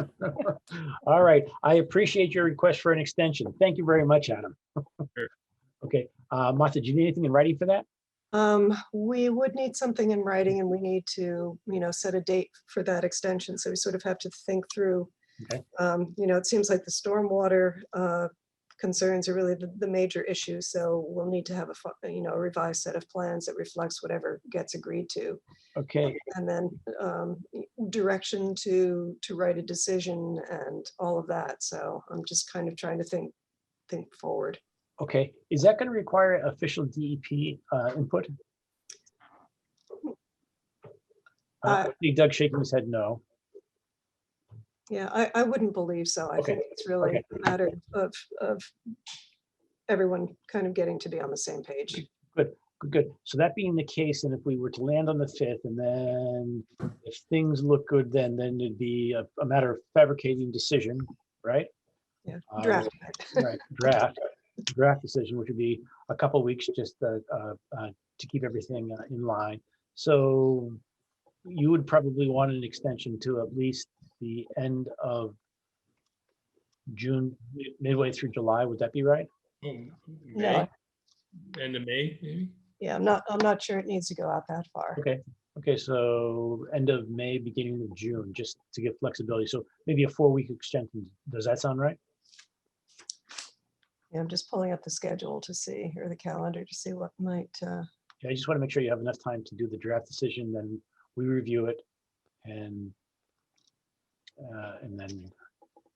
All right, I appreciate your request for an extension. Thank you very much, Adam. Sure. Okay, uh, Martha, do you need anything in writing for that? Um, we would need something in writing and we need to, you know, set a date for that extension. So we sort of have to think through. Okay. Um, you know, it seems like the stormwater, uh, concerns are really the, the major issue. So we'll need to have a, fi- you know, a revised set of plans that reflects whatever gets agreed to. Okay, And then, um, direction to, to write a decision and all of that. So I'm just kind of trying to think, think forward. okay. Is that going to require official DEP uh, input? Uh, Uh, I think Doug shaking his head no. Yeah, I, I wouldn't believe so. I Okay, think it's really okay. a matter of, of everyone kind of getting to be on the same page. Good, Good. So that being the case, and if we were to land on the fifth and then if things look good, then, then it'd be a, a matter of fabricating decision, right? Yeah, Uh, draft. it. Right, draft, draft decision, which would be a couple weeks just uh, uh, uh, to keep everything uh, in line. So you would probably want an extension to at least the end of June, mi- midway through July, would that be right? Oh, May, No, end of May, maybe? yeah, I'm not, I'm not sure it needs to go out that far. Okay, okay, so end of May, beginning of June, just to give flexibility. So maybe a four-week extension, does that sound right? Yeah, I'm just pulling up the schedule to see, or the calendar to see what might, uh, Yeah, I just want to make sure you have enough time to do the draft decision, then we review it and uh, and then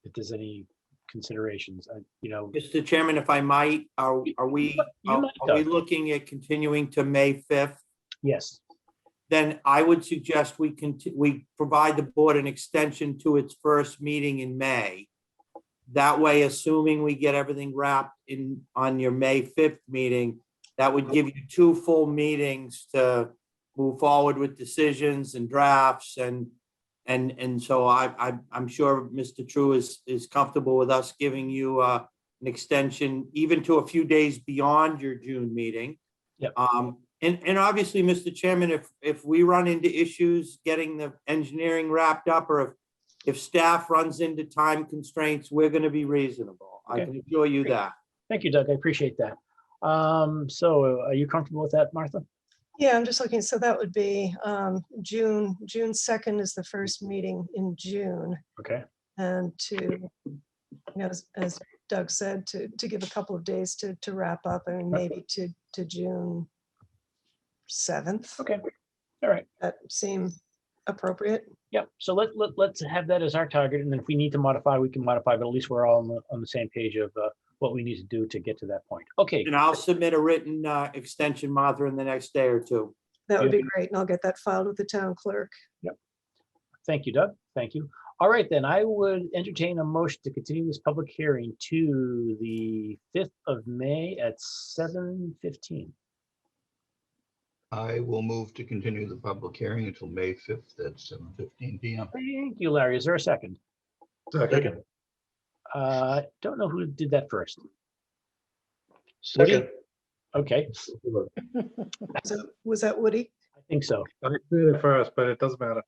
if there's any considerations, I, you know, Mr. Chairman, if I might, are, are we, You are might, are we Doug. looking at continuing to May 5th? yes, Then I would suggest we can, we provide the board an extension to its first meeting in May. That way, assuming we get everything wrapped in, on your May 5th meeting, that would give you two full meetings to move forward with decisions and drafts and, and, and so I, I, I'm sure Mr. True is, is comfortable with us giving you, uh, an extension even to a few days beyond your June meeting. Yep. Um, and, and obviously, Mr. Chairman, if, if we run into issues getting the engineering wrapped up or if, if staff runs into time constraints, we're going to be reasonable. I Okay. can assure you that. thank you, Doug, I appreciate that. Um, So are you comfortable with that, Martha? yeah, I'm just looking, so that would be, um, June, June 2nd is the first meeting in June. Okay, And to, you know, as- as Doug said, to, to give a couple of days to, to wrap up and Yep. maybe to, to June 7th. okay, all right, That seem appropriate? yeah, so let, let, let's have that as our target, and then if we need to modify, we can modify, but at least we're all on the, on the same page of uh, what we need to do to get to that point. Okay, And I'll submit a written uh, extension, Martha, in the next day or two. That would Yeah. be great. And I'll get that filed with the town clerk. Thank you, Doug. Thank you. All right, then I would entertain a motion to continue this public hearing to the fifth of May at seven fifteen. I will move to continue the public hearing until May 5th at 7:15 PM. Thank you, Larry. Is there a second? Second. Uh, don't know who did that first. Second. Okay, Was that- Was that Woody? I think so. I did it first, but it doesn't matter.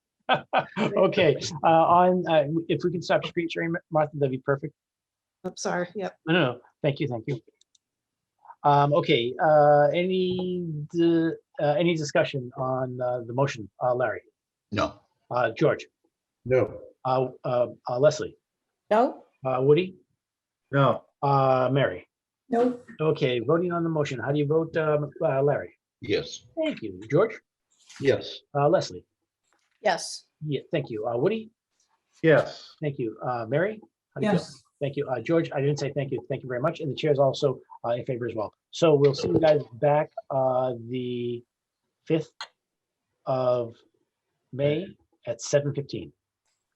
Okay, uh, on, uh, if we can stop screen sharing, Ma- Martha, that'd be perfect. I'm sorry. Yep. No, no, no. thank you, thank you. Um, okay, uh, any, di- uh, any discussion on, uh, the motion, uh, Larry, No, uh, George? No. Uh, uh, uh, Leslie, No? uh, Woody, No. uh, Mary. No. Okay, voting on the motion. How do you vote, um, uh, Larry? yes. Thank you. George? Yes. Uh, Leslie? Yes. Yeah, thank you. Uh, Woody? Yes. Thank you. Uh, Mary? How do you feel? Thank you. Uh, George, I didn't say thank you. Thank you very much. And the chair is also, uh, in favor as well. So we'll see you guys back, uh, the fifth of May at seven fifteen.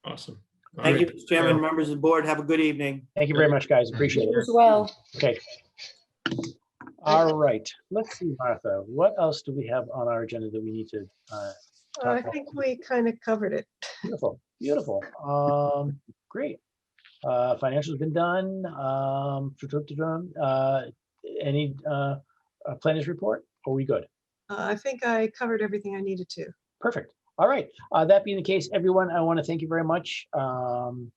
Awesome. All Thank you, right. Mr. Chairman, members of the board. Have a good evening. Thank you very much, guys. Appreciate it. You as well. Okay. All right, let's see, Martha, what else do we have on our agenda that we need to, uh, Uh, I think we kind of covered it. beautiful, beautiful, um, great. Uh, financial's been done, um, uh, any, uh, uh, planners report? Are we good? Uh, I think I covered everything I needed to. Perfect. All right. Uh, that being the case, everyone, I want to thank you very much. Um,